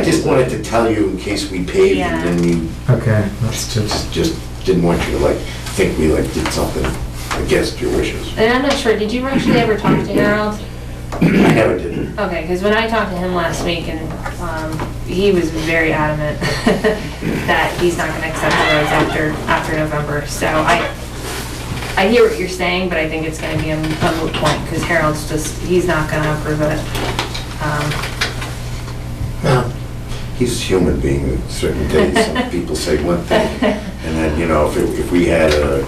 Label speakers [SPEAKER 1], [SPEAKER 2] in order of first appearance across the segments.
[SPEAKER 1] I just wanted to tell you in case we paved and then you
[SPEAKER 2] Okay, that's just,
[SPEAKER 1] just, just didn't want you to like, think we like did something against your wishes.
[SPEAKER 3] And I'm not sure, did you actually ever talk to Harold?
[SPEAKER 1] I never did.
[SPEAKER 3] Okay, because when I talked to him last week and um, he was very adamant that he's not going to accept the roads after, after November. So I, I hear what you're saying, but I think it's going to be a a moot point because Harold's just, he's not going to approve it. Um,
[SPEAKER 1] Well, He's a human being, certain days, some people say one thing, and then, you know, if, it- if we had a,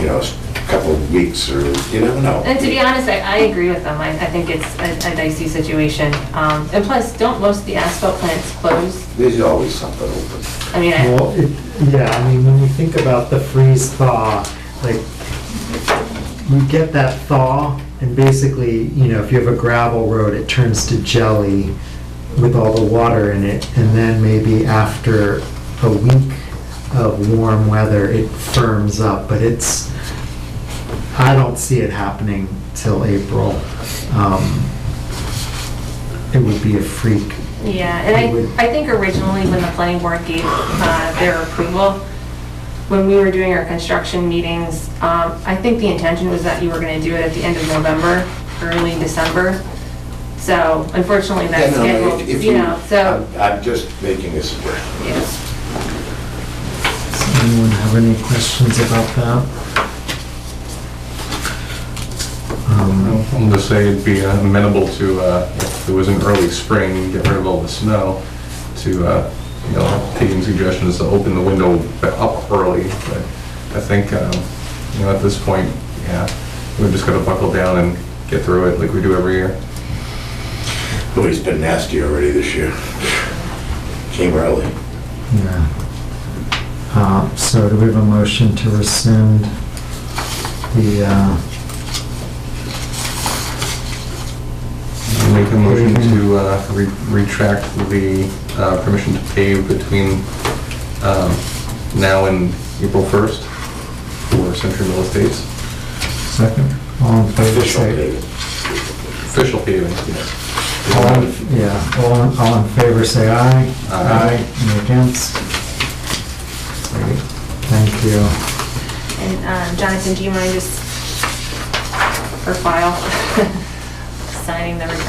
[SPEAKER 1] you know, a couple of weeks or, you never know.
[SPEAKER 3] And to be honest, I, I agree with them. I, I think it's a a dicey situation. Um, And plus, don't most of the asphalt plants close?
[SPEAKER 1] There's always something open.
[SPEAKER 3] I mean, I-
[SPEAKER 2] well, it, yeah, I mean, when you think about the freeze thaw, like, you get that thaw, and basically, you know, if you have a gravel road, it turns to jelly with all the water in it, and then maybe after a week of warm weather, it firms up, but it's, I don't see it happening till April. Um, It would be a freak
[SPEAKER 3] Yeah, and I, I think originally when the planning board gave uh, their approval, when we were doing our construction meetings, um, I think the intention was that you were going to do it at the end of November, early December. So unfortunately,
[SPEAKER 1] Yeah,
[SPEAKER 3] that's
[SPEAKER 1] no, no,
[SPEAKER 3] scheduled,
[SPEAKER 1] if- um, if
[SPEAKER 3] you know, so,
[SPEAKER 1] I'm- I'm just making this aware.
[SPEAKER 3] yeah.
[SPEAKER 2] Does anyone have any questions about that? Um,
[SPEAKER 4] I'm gonna say it'd be amenable to, uh, if it was an early spring, get rid of all the snow, to, uh, you know, taking suggestions to open the window up early, but I think, um, you know, at this point, yeah, we've just gotta buckle down and get through it like we do every year.
[SPEAKER 1] Boy, he's been nasty already this year. Came early.
[SPEAKER 2] Yeah. Uh, So do we have a motion to rescind the uh,
[SPEAKER 4] Make a motion to uh, re- retract the uh, permission to pave between um, now and April 1st for Century Mill Estates.
[SPEAKER 2] second? All in favor,
[SPEAKER 1] Official
[SPEAKER 2] say,
[SPEAKER 1] paving.
[SPEAKER 4] Official paving,
[SPEAKER 2] all,
[SPEAKER 4] yes.
[SPEAKER 2] in- yeah, all, in- all in favor, say aye.
[SPEAKER 4] Aye.
[SPEAKER 2] Any against? Great, Thank you.
[SPEAKER 3] And um, Jonathan, do you mind just, for file, signing the retraction?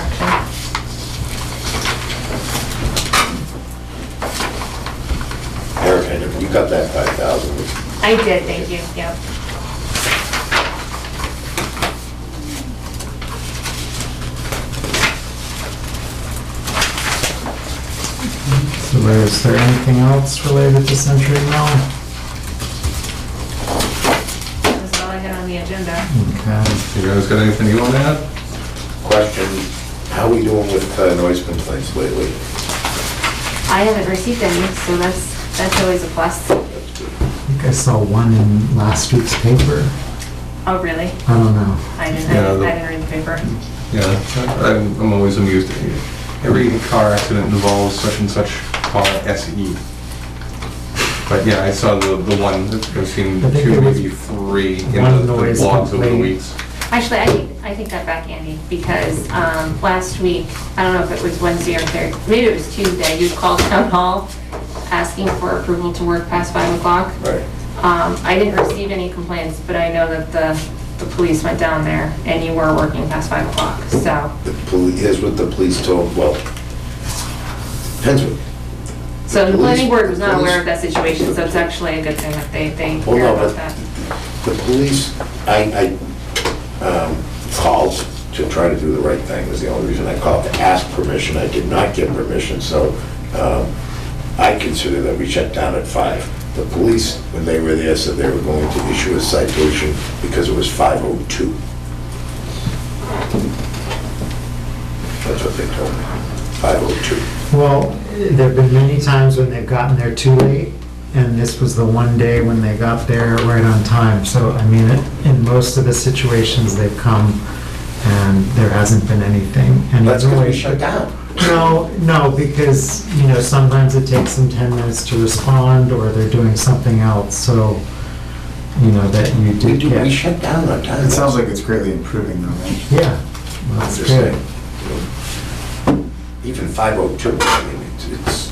[SPEAKER 1] Eric, I never- you got that 5,000.
[SPEAKER 3] I did, thank you, yep.
[SPEAKER 2] So is there anything else related to Century Mill?
[SPEAKER 3] That's all I had on the agenda.
[SPEAKER 2] Okay.
[SPEAKER 4] You guys got anything you want to add?
[SPEAKER 1] Question, how we doing with uh, noise complaints lately?
[SPEAKER 3] I haven't received any, so that's, that's always a plus.
[SPEAKER 2] I think I saw one in last week's paper.
[SPEAKER 3] Oh, really?
[SPEAKER 2] I don't know.
[SPEAKER 3] I didn't,
[SPEAKER 4] Yeah,
[SPEAKER 3] I
[SPEAKER 4] the-
[SPEAKER 3] didn't read the paper.
[SPEAKER 4] Yeah, I'm, I'm always amused. at you. Every car accident involves such and such car SE. But yeah, I saw the, the one, I've seen
[SPEAKER 2] I think
[SPEAKER 4] two,
[SPEAKER 2] it was
[SPEAKER 4] maybe three in
[SPEAKER 2] one
[SPEAKER 4] the the
[SPEAKER 2] noise
[SPEAKER 4] blogs over the
[SPEAKER 2] complaint.
[SPEAKER 4] weeks.
[SPEAKER 3] Actually, I, take- I take that back, Andy, because um, last week, I don't know if it was Wednesday or Thursday, maybe it was Tuesday, you called town hall asking for approval to work past five o'clock.
[SPEAKER 1] Right.
[SPEAKER 3] Um, I didn't receive any complaints, but I know that the, the police went down there and you were working past five o'clock, so,
[SPEAKER 1] The police, here's what the police told, well, depends what.
[SPEAKER 3] so the planning board was
[SPEAKER 1] The
[SPEAKER 3] not
[SPEAKER 1] police-
[SPEAKER 3] aware of that situation, so it's actually a good thing that they, they
[SPEAKER 1] Well,
[SPEAKER 3] hear
[SPEAKER 1] no,
[SPEAKER 3] about
[SPEAKER 1] but
[SPEAKER 3] that.
[SPEAKER 1] the police, I, I um, called to try to do the right thing, was the only reason I called, to ask permission, I did not get permission, so um, I consider that we shut down at five. The police, when they were there, said they were going to issue a citation because it was 5:02. That's what they told me, 5:02.
[SPEAKER 2] Well, there've been many times when they've gotten there too late, and this was the one day when they got there right on time. So, I mean, in most of the situations, they've come and there hasn't been anything. And
[SPEAKER 1] That's
[SPEAKER 2] it's
[SPEAKER 1] because we
[SPEAKER 2] always
[SPEAKER 1] shut down.
[SPEAKER 2] No, no, because, you know, sometimes it takes them 10 minutes to respond, or they're doing something else, so, you know, that you
[SPEAKER 1] We
[SPEAKER 2] did
[SPEAKER 1] do, we
[SPEAKER 2] get.
[SPEAKER 1] shut down on time.
[SPEAKER 5] It sounds like it's greatly improving though, right?
[SPEAKER 2] Yeah, well,
[SPEAKER 1] I'm
[SPEAKER 2] that's
[SPEAKER 1] just
[SPEAKER 2] good.
[SPEAKER 1] saying. Even 502, I mean, it's- it's,